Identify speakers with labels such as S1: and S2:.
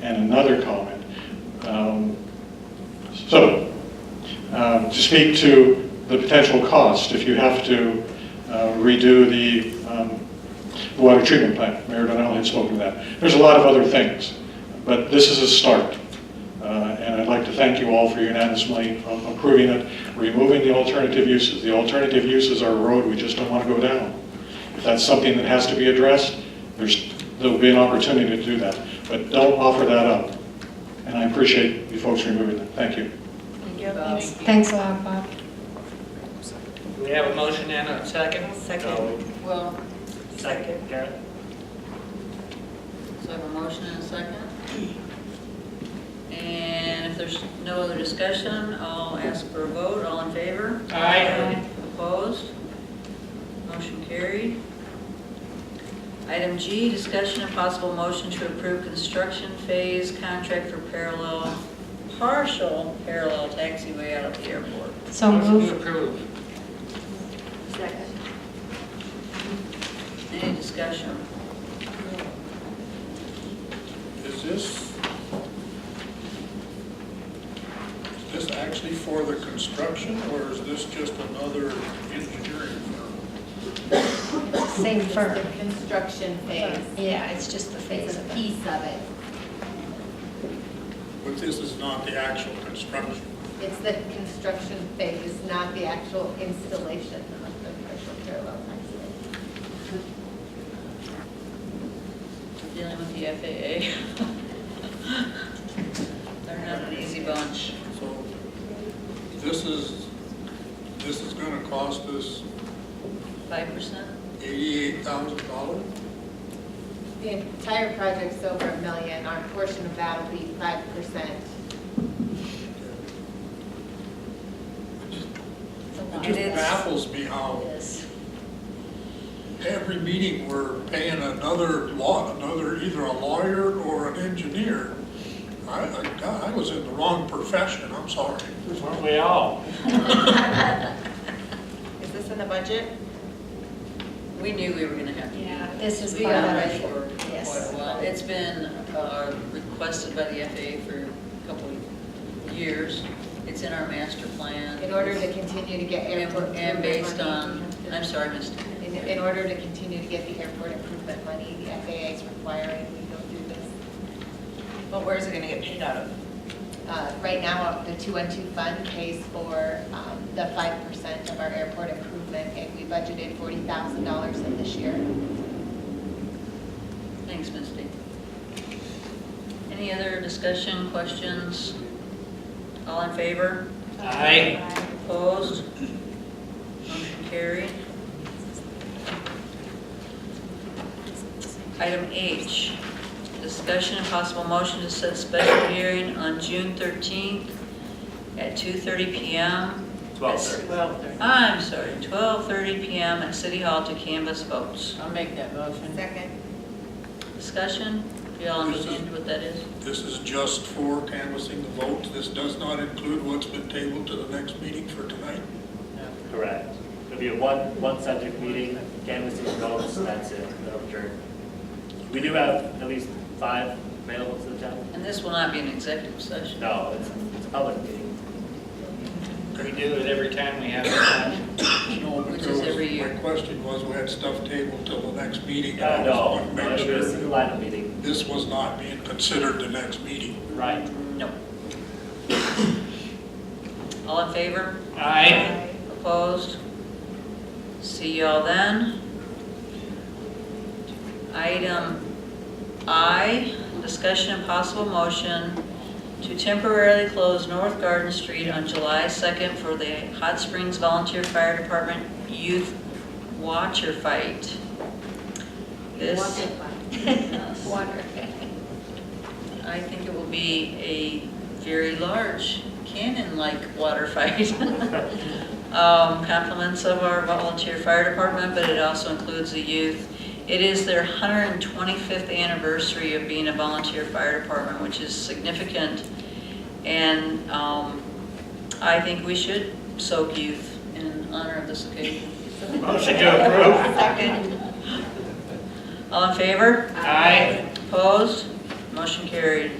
S1: and another comment. Um, So, um, to speak to the potential cost, if you have to uh, redo the um, water treatment plant, Mayor Donnell had spoken to that. There's a lot of other things, but this is a start. Uh, And I'd like to thank you all for unanimously um, approving it, removing the alternative uses. The alternative uses are a road we just don't want to go down. If that's something that has to be addressed, there's, there'll be an opportunity to do that. But don't offer that up. And I appreciate you folks removing that. Thank you.
S2: Thank you.
S3: Thanks.
S4: Thanks a lot, Bob.
S5: We have a motion and a second?
S2: Second.
S5: No.
S3: Well,
S5: Second, Garrett?
S3: so I have a motion and a second. And if there's no other discussion, I'll ask for a vote. All in favor?
S5: Aye.
S3: Opposed? Motion carried. Item G, discussion and possible motion to approve construction phase contract for parallel, partial parallel taxiway out of the airport.
S4: So
S5: Motion to
S4: move.
S5: approve.
S3: Any discussion?
S6: Is this, is this actually for the construction, or is this just another engineering firm?
S4: Same
S7: It's
S4: firm.
S7: the construction phase.
S4: Yeah, it's just the phase
S7: It's a
S4: of it.
S7: piece of it.
S6: But this is not the actual construction.
S7: It's the construction phase, not the actual installation of the partial parallel taxiway.
S3: Dealing with the FAA. They're not an easy bunch.
S6: So this is, this is gonna cost us
S3: Five percent?
S6: eighty-eight thousand dollars?
S7: The entire project's over a million, our portion of that will be five percent.
S3: It
S6: It just
S3: is.
S6: baffles me how
S3: Yes.
S6: every meeting, we're paying another law, another, either a lawyer or an engineer. I, I, God, I was in the wrong profession, I'm sorry.
S5: Weren't we all?
S2: Is this in the budget?
S3: We knew we were gonna have to do
S4: Yeah,
S3: that.
S4: this is
S3: We
S4: part
S3: got
S4: of
S3: it
S4: it.
S3: for quite
S4: Yes.
S3: a while. It's been uh, requested by the FAA for a couple of years. It's in our master plan.
S7: In order to continue to get
S3: And
S7: airport.
S3: and based
S7: improvement
S3: on,
S7: money, you
S3: I'm
S7: have to-
S3: sorry, Mr.
S7: In, in order to continue to get the airport improvement money, the FAA is requiring we go through this.
S2: But where is it gonna get paid out of?
S7: Uh, Right now, the 212 fund pays for um, the 5% of our airport improvement, and we budgeted $40,000 in this year.
S3: Thanks, Misty. Any other discussion, questions? All in favor?
S5: Aye.
S3: Opposed? Motion carried. Item H, discussion and possible motion to set special hearing on June 13th at 2:30 PM.
S5: Twelve thirty.
S2: Well,
S3: I'm sorry, 12:30 PM at City Hall to canvass votes.
S2: I'll make that motion. Second.
S3: Discussion? Do y'all understand what that is?
S6: This is just for canvassing the vote. This does not include what's been tabled to the next meeting for tonight.
S8: Correct. It'll be a one, one subject meeting, canvassing votes, and that's it, no adjourn. We do have at least five available to the town.
S3: And this will not be an executive session.
S8: No, it's, it's a public meeting.
S5: We do it every time we have a election.
S6: No, but
S3: Which
S6: there
S3: is
S6: was-
S3: every year.
S6: My question was, we had stuff tabled till the next meeting.
S8: Uh,
S6: and I just wanted to make
S8: No, no, it'll be a
S6: sure
S8: single item meeting,
S6: This was not being considered the next meeting.
S8: right?
S3: No. All in favor?
S5: Aye.
S3: Opposed? See y'all then. Item I, discussion and possible motion to temporarily close North Garden Street on July 2nd for the Hot Springs Volunteer Fire Department Youth Watcher Fight. This,
S4: Water.
S3: I think it will be a very large cannon-like water fight. Um, Compliments of our volunteer fire department, but it also includes the youth. It is their 125th anniversary of being a volunteer fire department, which is significant. And um, I think we should soak youth in honor of this occasion.
S5: Motion to approve.
S2: Second.
S3: All in favor?
S5: Aye.
S3: Opposed? Motion carried.